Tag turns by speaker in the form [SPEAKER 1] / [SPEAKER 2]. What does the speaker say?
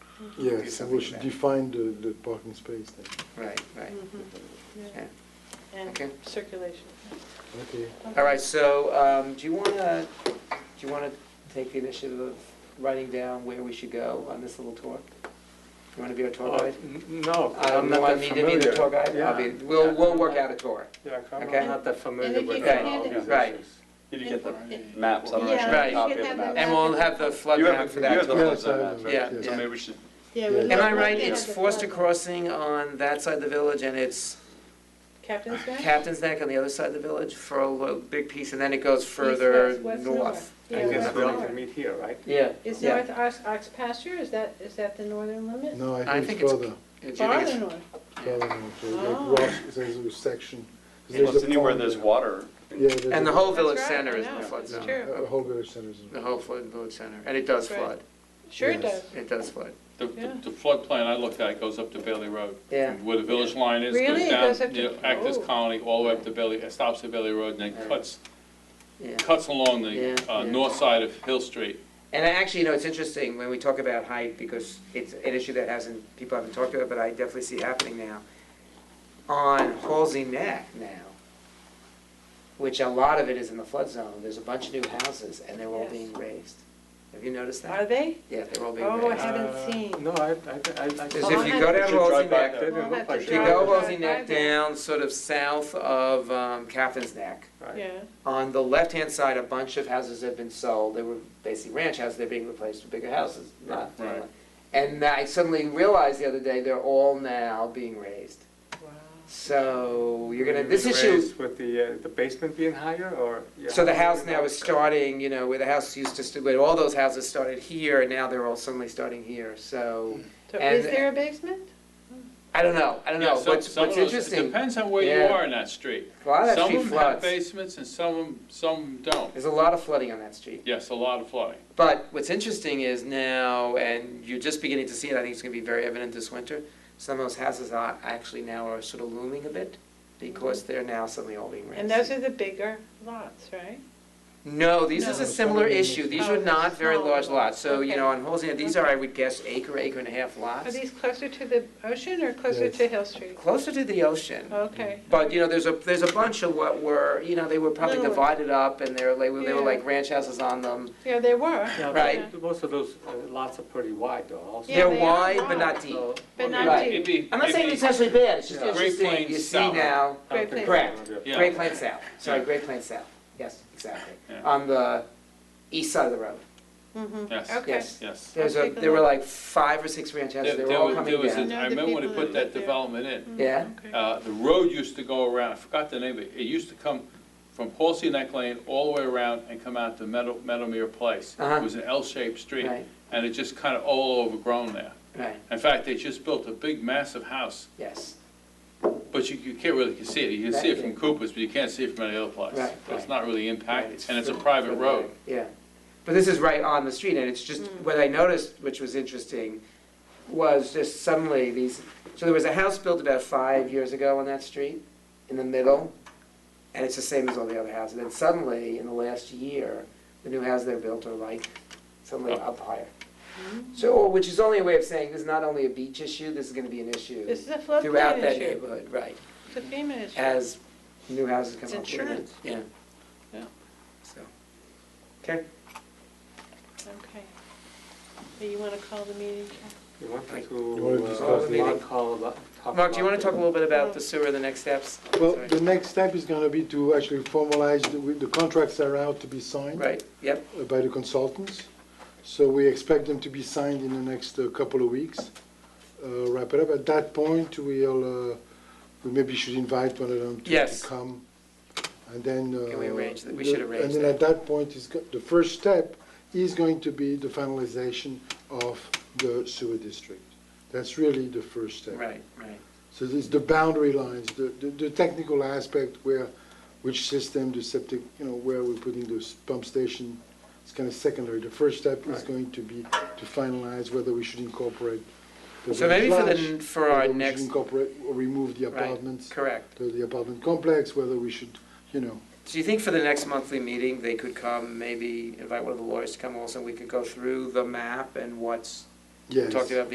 [SPEAKER 1] Yeah,
[SPEAKER 2] do
[SPEAKER 1] so
[SPEAKER 2] something
[SPEAKER 1] we
[SPEAKER 2] with
[SPEAKER 1] should
[SPEAKER 2] that.
[SPEAKER 1] define the, the parking space then.
[SPEAKER 2] Right, right.
[SPEAKER 3] Mhm.
[SPEAKER 2] Yeah.
[SPEAKER 3] Yeah. And
[SPEAKER 2] Okay.
[SPEAKER 3] circulation.
[SPEAKER 1] Okay.
[SPEAKER 2] All right, so um, do you want to, do you want to take the initiative of writing down where we should go on this little tour? You want to be our tour
[SPEAKER 4] Uh,
[SPEAKER 2] guide?
[SPEAKER 4] n- No,
[SPEAKER 2] I don't
[SPEAKER 4] I'm not
[SPEAKER 2] want
[SPEAKER 4] that
[SPEAKER 2] me to be the tour guide?
[SPEAKER 4] familiar.
[SPEAKER 2] I'll be,
[SPEAKER 4] Yeah.
[SPEAKER 2] we'll, we'll work out a tour.
[SPEAKER 4] Yeah, 'cause I'm
[SPEAKER 2] Okay.
[SPEAKER 4] not that familiar
[SPEAKER 5] if you
[SPEAKER 4] with
[SPEAKER 2] can
[SPEAKER 4] all
[SPEAKER 5] hand
[SPEAKER 4] these
[SPEAKER 2] Right.
[SPEAKER 4] issues.
[SPEAKER 6] Did you
[SPEAKER 5] If-
[SPEAKER 6] get the
[SPEAKER 5] if-
[SPEAKER 6] maps? I'm not
[SPEAKER 3] Yeah,
[SPEAKER 6] sure I have a
[SPEAKER 3] you
[SPEAKER 6] copy
[SPEAKER 5] should
[SPEAKER 6] of the
[SPEAKER 5] have the
[SPEAKER 6] map.
[SPEAKER 2] And we'll have the flood
[SPEAKER 6] You
[SPEAKER 2] map
[SPEAKER 6] have,
[SPEAKER 2] for
[SPEAKER 6] you have
[SPEAKER 2] that.
[SPEAKER 6] the
[SPEAKER 1] Yeah,
[SPEAKER 6] ones
[SPEAKER 1] so I
[SPEAKER 6] on that,
[SPEAKER 1] have it,
[SPEAKER 2] Yeah,
[SPEAKER 1] yes.
[SPEAKER 6] so maybe we should,
[SPEAKER 1] Yeah.
[SPEAKER 2] Am I right? It's Forster Crossing on that side of the village and it's
[SPEAKER 3] Captain's Neck?
[SPEAKER 2] Captain's Neck on the other side of the village for a lo- big piece, and then it goes further
[SPEAKER 3] East, west, west,
[SPEAKER 2] north.
[SPEAKER 3] Yeah,
[SPEAKER 4] I guess
[SPEAKER 3] west,
[SPEAKER 4] we only
[SPEAKER 3] north.
[SPEAKER 4] can meet here, right?
[SPEAKER 2] Yeah.
[SPEAKER 3] Is
[SPEAKER 2] Yeah.
[SPEAKER 3] North Ox, Ox pasture, is that, is that the northern limit?
[SPEAKER 1] No,
[SPEAKER 2] I
[SPEAKER 1] I think
[SPEAKER 2] think
[SPEAKER 1] it's
[SPEAKER 2] it's-
[SPEAKER 1] further,
[SPEAKER 2] Do you think
[SPEAKER 3] Farther
[SPEAKER 2] it's-
[SPEAKER 3] north.
[SPEAKER 1] further north, so
[SPEAKER 3] Oh.
[SPEAKER 1] like Ross, there's a section. 'cause
[SPEAKER 6] well,
[SPEAKER 1] there's
[SPEAKER 6] it's
[SPEAKER 1] a
[SPEAKER 6] anywhere
[SPEAKER 1] pond
[SPEAKER 6] there's
[SPEAKER 1] there.
[SPEAKER 6] water.
[SPEAKER 1] Yeah, there's
[SPEAKER 2] And the
[SPEAKER 1] a-
[SPEAKER 2] whole
[SPEAKER 3] That's
[SPEAKER 2] village
[SPEAKER 3] right,
[SPEAKER 2] center
[SPEAKER 3] I
[SPEAKER 2] is in the
[SPEAKER 3] know,
[SPEAKER 2] flood
[SPEAKER 3] it's
[SPEAKER 2] zone.
[SPEAKER 3] true.
[SPEAKER 1] uh, Whole village centers. in-
[SPEAKER 2] The whole flood village center, and it does
[SPEAKER 3] Right.
[SPEAKER 2] flood.
[SPEAKER 3] Sure it
[SPEAKER 1] Yes.
[SPEAKER 3] does.
[SPEAKER 2] It does flood.
[SPEAKER 6] The,
[SPEAKER 3] Yeah.
[SPEAKER 6] the flood plan I looked at goes up to Bailey Road.
[SPEAKER 2] Yeah.
[SPEAKER 6] Where the village line is,
[SPEAKER 3] Really?
[SPEAKER 6] goes
[SPEAKER 3] It
[SPEAKER 6] down,
[SPEAKER 3] goes up to-
[SPEAKER 6] you know, Actors
[SPEAKER 3] oh.
[SPEAKER 6] Colony, all the way up to Bailey, it stops at Bailey Road and then
[SPEAKER 2] Right.
[SPEAKER 6] cuts,
[SPEAKER 2] Yeah.
[SPEAKER 6] cuts along the,
[SPEAKER 2] Yeah.
[SPEAKER 6] uh,
[SPEAKER 3] Yeah.
[SPEAKER 6] north side of Hill Street.
[SPEAKER 2] And I actually, you know, it's interesting when we talk about height, because it's an issue that hasn't, people haven't talked about, but I definitely see happening now. On Halsey Neck now, which a lot of it is in the flood zone, there's a bunch of new houses, and they're all
[SPEAKER 3] Yes.
[SPEAKER 2] being raised. Have you noticed
[SPEAKER 3] Are
[SPEAKER 2] that?
[SPEAKER 3] they?
[SPEAKER 2] Yeah, they're all being
[SPEAKER 3] Oh, I
[SPEAKER 2] raised.
[SPEAKER 3] haven't
[SPEAKER 4] Uh,
[SPEAKER 3] seen.
[SPEAKER 4] No, I, I, I. I-
[SPEAKER 2] Because
[SPEAKER 3] Well,
[SPEAKER 2] if you go
[SPEAKER 3] I had-
[SPEAKER 2] down
[SPEAKER 4] Should drive
[SPEAKER 2] Halsey
[SPEAKER 4] by
[SPEAKER 2] Neck,
[SPEAKER 4] there. Didn't
[SPEAKER 3] Well,
[SPEAKER 4] look
[SPEAKER 3] I had
[SPEAKER 4] like
[SPEAKER 3] to
[SPEAKER 2] if
[SPEAKER 4] it.
[SPEAKER 2] you
[SPEAKER 3] drive
[SPEAKER 2] go
[SPEAKER 3] by
[SPEAKER 2] Halsey Neck
[SPEAKER 3] there.
[SPEAKER 2] down, sort of south of um, Captain's Neck,
[SPEAKER 4] Right.
[SPEAKER 3] Yeah,
[SPEAKER 2] on the left-hand side, a bunch of houses have been sold, they were basically ranch houses, they're being replaced with bigger houses, not.
[SPEAKER 6] Right.
[SPEAKER 2] And I suddenly realized the other day, they're all now being raised.
[SPEAKER 3] wow.
[SPEAKER 2] So you're gonna,
[SPEAKER 4] Maybe
[SPEAKER 2] this
[SPEAKER 4] raised
[SPEAKER 2] issue,
[SPEAKER 4] With the, uh, the basement being higher or? yeah,
[SPEAKER 2] so the
[SPEAKER 4] how
[SPEAKER 2] house
[SPEAKER 4] do we
[SPEAKER 2] now
[SPEAKER 4] know?
[SPEAKER 2] is starting, you know, where the house used to, st- where all those houses started here, and now they're all suddenly starting here, so,
[SPEAKER 3] So
[SPEAKER 2] And-
[SPEAKER 3] is there a basement?
[SPEAKER 2] I don't know, I don't know,
[SPEAKER 6] Yeah, some-
[SPEAKER 2] what's,
[SPEAKER 6] some
[SPEAKER 2] what's
[SPEAKER 6] of those- It
[SPEAKER 2] interesting, a
[SPEAKER 6] depends on where you
[SPEAKER 2] Yeah.
[SPEAKER 6] are in that street.
[SPEAKER 2] lot of that
[SPEAKER 6] Some
[SPEAKER 2] street
[SPEAKER 6] of them have
[SPEAKER 2] floods.
[SPEAKER 6] basements and some, of 'em- some don't.
[SPEAKER 2] There's a lot of flooding on that street.
[SPEAKER 6] Yes, a lot of flooding.
[SPEAKER 2] But what's interesting is now, and you're just beginning to see it, I think it's gonna be very evident this winter, some of those houses are actually now are sort of looming a bit, because they're now suddenly all being raised.
[SPEAKER 3] And those are the bigger lots, right?
[SPEAKER 2] No, these is
[SPEAKER 3] No.
[SPEAKER 2] a similar issue, these
[SPEAKER 3] Oh,
[SPEAKER 2] are not very
[SPEAKER 3] smaller
[SPEAKER 2] large
[SPEAKER 3] lots.
[SPEAKER 2] lots, so, you know,
[SPEAKER 3] Okay.
[SPEAKER 2] on Holsey, these are, I would guess, acre, acre and a half
[SPEAKER 3] Are
[SPEAKER 2] lots.
[SPEAKER 3] these closer to the ocean or closer
[SPEAKER 1] Yes.
[SPEAKER 3] to Hill Street?
[SPEAKER 2] Closer to the ocean,
[SPEAKER 3] Okay.
[SPEAKER 2] but, you know, there's a, there's a bunch of what were, you know, they were probably
[SPEAKER 3] Little-
[SPEAKER 2] divided up, and they were, like- they were
[SPEAKER 3] Yeah.
[SPEAKER 2] like ranch houses on them.
[SPEAKER 3] Yeah, they were,
[SPEAKER 4] Yeah, but
[SPEAKER 2] Right.
[SPEAKER 4] Most of those uh, lots are pretty wide though also.
[SPEAKER 3] Yeah,
[SPEAKER 2] They're
[SPEAKER 3] they are
[SPEAKER 2] wide, but
[SPEAKER 3] wide.
[SPEAKER 2] not deep.
[SPEAKER 4] So-
[SPEAKER 3] but
[SPEAKER 4] okay.
[SPEAKER 3] not
[SPEAKER 2] Right.
[SPEAKER 3] deep.
[SPEAKER 6] It'd be-
[SPEAKER 2] I'm not
[SPEAKER 6] it'd
[SPEAKER 2] saying
[SPEAKER 6] be-
[SPEAKER 2] it's necessarily bad, it's just
[SPEAKER 4] Yeah.
[SPEAKER 6] Great
[SPEAKER 2] interesting, you
[SPEAKER 6] Plains
[SPEAKER 2] see
[SPEAKER 6] South.
[SPEAKER 2] now,
[SPEAKER 4] I don't think
[SPEAKER 3] Great
[SPEAKER 4] that's
[SPEAKER 2] place.
[SPEAKER 4] gonna be a-
[SPEAKER 6] Yeah.
[SPEAKER 2] Great Plains South, sorry,
[SPEAKER 6] Yeah.
[SPEAKER 2] Great Plains South, yes, exactly,
[SPEAKER 6] Yeah.
[SPEAKER 2] on the east side of the road,
[SPEAKER 3] Mm-hmm,
[SPEAKER 6] Yes,
[SPEAKER 3] okay.
[SPEAKER 2] yes.
[SPEAKER 6] yes.
[SPEAKER 2] There's a,
[SPEAKER 3] take a
[SPEAKER 2] there were
[SPEAKER 3] look.
[SPEAKER 2] like five or six ranch houses, they
[SPEAKER 6] There-
[SPEAKER 2] were
[SPEAKER 6] there
[SPEAKER 2] all
[SPEAKER 6] was- there
[SPEAKER 2] coming
[SPEAKER 6] was
[SPEAKER 2] down.
[SPEAKER 6] a-
[SPEAKER 3] No,
[SPEAKER 6] I
[SPEAKER 3] the
[SPEAKER 6] remember when they
[SPEAKER 3] people
[SPEAKER 6] put
[SPEAKER 3] that
[SPEAKER 6] that
[SPEAKER 3] lived there. Mm.
[SPEAKER 6] development in,
[SPEAKER 2] Yeah.
[SPEAKER 3] Mm-hmm. Okay.
[SPEAKER 6] uh, the road used to go around, I forgot the name of it, it used to come from Paulsey Neck Lane all the way around and come out to Meadow, Meadowmere Place.
[SPEAKER 2] Uh-huh.
[SPEAKER 6] It was an L-shaped street,
[SPEAKER 2] Right.
[SPEAKER 6] and it just kind of all overgrown there.
[SPEAKER 2] Right,
[SPEAKER 6] In fact, they just built a big massive house,
[SPEAKER 2] yes,
[SPEAKER 6] but you, you can't really see it, you can see it from
[SPEAKER 2] Right.
[SPEAKER 6] Cooper's, but you can't see it from any other place.
[SPEAKER 2] Right,
[SPEAKER 6] It's
[SPEAKER 2] right.
[SPEAKER 6] not really
[SPEAKER 2] Right,
[SPEAKER 6] impacted,
[SPEAKER 2] it's
[SPEAKER 6] and it's a
[SPEAKER 2] for-
[SPEAKER 6] private
[SPEAKER 2] for the-
[SPEAKER 6] road.
[SPEAKER 2] yeah. But this is right on the street, and it's just, what I noticed, which was interesting, was just suddenly these, so there was a house built about five years ago on that street, in the middle, and it's the same as all the other houses, and then suddenly, in the last year, the new houses they built are like, suddenly
[SPEAKER 6] Up.
[SPEAKER 2] up higher. So, which is only a way of saying, this is not only a beach issue, this is gonna be an
[SPEAKER 3] This
[SPEAKER 2] issue
[SPEAKER 3] is a floodplain
[SPEAKER 2] throughout that
[SPEAKER 3] issue,
[SPEAKER 2] neighborhood, right,
[SPEAKER 3] it's a FEMA issue.
[SPEAKER 2] as new houses come up.
[SPEAKER 3] It's
[SPEAKER 2] with it.
[SPEAKER 3] insurance.
[SPEAKER 2] Yeah.
[SPEAKER 6] Yeah.
[SPEAKER 2] So, okay.
[SPEAKER 3] Okay. Do you want to call the meeting?
[SPEAKER 4] You wanted
[SPEAKER 1] You wanted to
[SPEAKER 4] to,
[SPEAKER 1] discuss
[SPEAKER 4] uh,
[SPEAKER 2] the-
[SPEAKER 4] Mark call about. talk
[SPEAKER 2] Mark, do you
[SPEAKER 4] about
[SPEAKER 2] want to talk a
[SPEAKER 4] the-
[SPEAKER 2] little bit about the
[SPEAKER 3] Uh-huh.
[SPEAKER 2] sewer, the next steps?
[SPEAKER 1] Well,
[SPEAKER 2] Sorry.
[SPEAKER 1] the next step is gonna be to actually formalize, the with the contracts that are out to be signed.
[SPEAKER 2] Right, yep,
[SPEAKER 1] uh, by the consultants. So we expect them to be signed in the next uh, couple of weeks. Uh, Wrap it up. At that point, we'll, uh, we maybe should invite one of them to-
[SPEAKER 2] Yes.
[SPEAKER 1] to come. And then. uh,
[SPEAKER 2] Can we arrange that? We should
[SPEAKER 1] the-
[SPEAKER 2] arrange
[SPEAKER 1] And then
[SPEAKER 2] that.
[SPEAKER 1] at that point, is, go- the first step is going to be the finalization of the sewer district. That's really the first step.
[SPEAKER 2] right, right,
[SPEAKER 1] So it's the boundary lines, the, the, the technical aspect where, which system, the septic, you know, where we're putting this pump station, it's kind of secondary. The first step is
[SPEAKER 4] Right.
[SPEAKER 1] going to be to finalize whether we should incorporate. the
[SPEAKER 2] So maybe for the-
[SPEAKER 1] village
[SPEAKER 2] for our
[SPEAKER 1] whether we should
[SPEAKER 2] next-
[SPEAKER 1] Incorporate or remove the
[SPEAKER 2] Right.
[SPEAKER 1] apartments,
[SPEAKER 2] correct.
[SPEAKER 1] the, the apartment complex, whether we should, you know,
[SPEAKER 2] Do you think for the next monthly meeting, they could come, maybe invite one of the lawyers to come also, and we could go through the map and what's
[SPEAKER 1] yes.
[SPEAKER 2] talked about